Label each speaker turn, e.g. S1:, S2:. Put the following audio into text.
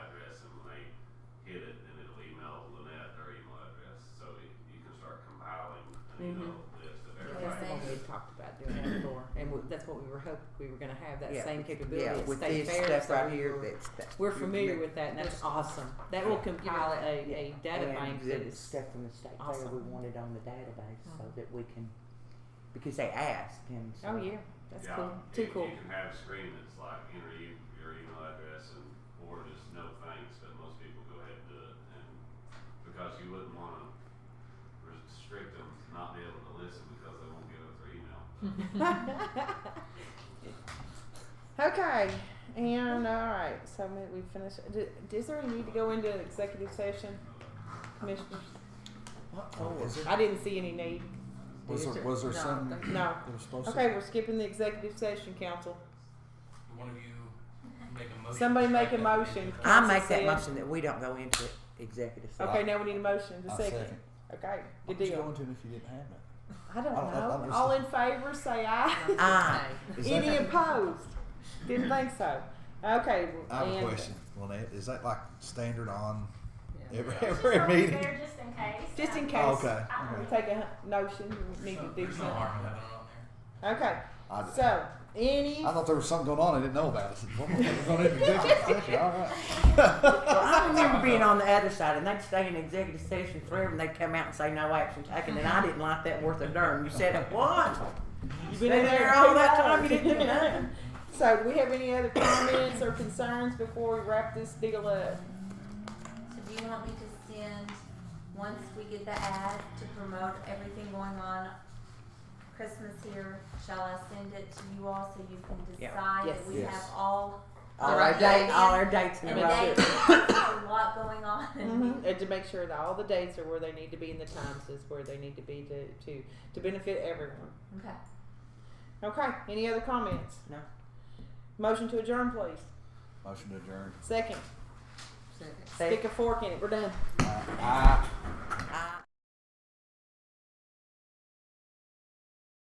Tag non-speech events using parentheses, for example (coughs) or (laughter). S1: Mm-hmm.
S2: (clears throat)
S1: that's what we were hoping we were going to have that
S2: Yeah,
S1: same
S2: with-
S1: capability
S2: Yeah,
S1: at
S2: with
S1: State
S2: this
S1: Fair,
S2: stuff
S1: so
S2: right
S1: we
S2: here
S1: were-
S2: that's. that
S1: We're
S2: you
S1: familiar
S2: make-
S1: with that, and that's awesome. That will compile a, a data
S2: and
S1: bank that
S2: exhibit
S1: is
S2: Stuff from the state fair we
S1: awesome.
S2: wanted on the database so
S1: Mhm.
S2: that we can, because they asked and so.
S1: Oh yeah, that's
S3: Yeah,
S1: cool. Too
S3: you-
S1: cool.
S3: (laughs)
S1: (laughs)
S3: You can have a screen that's like enter you- your email address and or just no thanks, but most people go ahead and do it, and because you wouldn't want to restrict them to not be able to listen because they won't give up their email.
S4: Okay, and all right, so we, we finished. Did, is there any need to go into an executive session, commissioners?
S5: What for?
S6: Oh, Is it-
S4: I didn't see any need.
S6: Was
S4: Is
S6: there, was there
S4: No,
S6: some
S4: thank you. No.
S6: that was supposed
S4: Okay,
S6: to?
S4: we're skipping the executive session, council.
S7: One of you make a motion.
S4: Somebody
S7: to
S4: make a
S7: strike that
S4: motion.
S7: meeting.
S2: I
S4: Council
S2: make that
S4: said-
S2: motion that we don't go into executive session.
S4: Okay, now we need a motion, the
S6: I
S4: second. Okay,
S6: What
S4: good
S6: was you going
S4: deal.
S6: to if you didn't have it?
S4: I don't
S6: I don't- I- I
S4: know.
S6: was-
S4: All in favor, say
S6: (laughs)
S4: aye.
S2: Ah.
S6: Is that-
S4: Any opposed? Didn't think so. Okay.
S6: I have
S4: and-
S6: a question, Lynette. Is that like standard on
S1: Yeah.
S6: every, (laughs)
S8: It's just
S6: every
S8: always
S6: meeting?
S8: there Just in case.
S4: Just in
S8: Um,
S4: case.
S6: Oh, okay.
S4: We
S6: okay.
S4: take a hun- notion, we need
S7: So,
S4: to do
S7: There's no harm in
S4: something.
S7: having it on there.
S4: Okay,
S6: I,
S4: so, any,
S6: I thought there was something going on I didn't know about. I said, well, we're going into
S4: (laughs)
S6: executive session. All right.
S2: (laughs) Well, I remember being on the other side, and they'd stay in executive session forever, and they'd come out and say no action taken, and I didn't like that worth a darn. You said it once.
S4: you've
S2: Been
S4: been
S2: in
S4: in
S2: there all that time, you
S4: two
S2: didn't do
S4: hours.
S1: (laughs)
S2: nothing.
S4: (laughs) So, do we have any other comments or concerns before we wrap this deal up?
S9: So do you want me to send, once we get the ad to promote everything going on Christmas here, shall I send it to you all so you can
S2: Yeah.
S9: decide
S4: Yes.
S9: that we have
S6: Yes.
S9: all
S2: All our dates, all our dates in
S9: and
S2: a
S9: the
S2: row.
S9: dates, (coughs) a lot going on?
S6: Mm-hmm.
S4: Mhm. And to make sure that all the dates are where they need to be and the times is where they need to be to, to, to benefit everyone.
S9: Okay.
S4: Okay, any other comments?
S2: No.
S4: Motion to adjourn, please.
S6: (laughs) Motion to adjourn.
S4: Second,
S1: Second.
S2: They-
S4: stick a fork in it, we're done.
S6: Aye. Aye.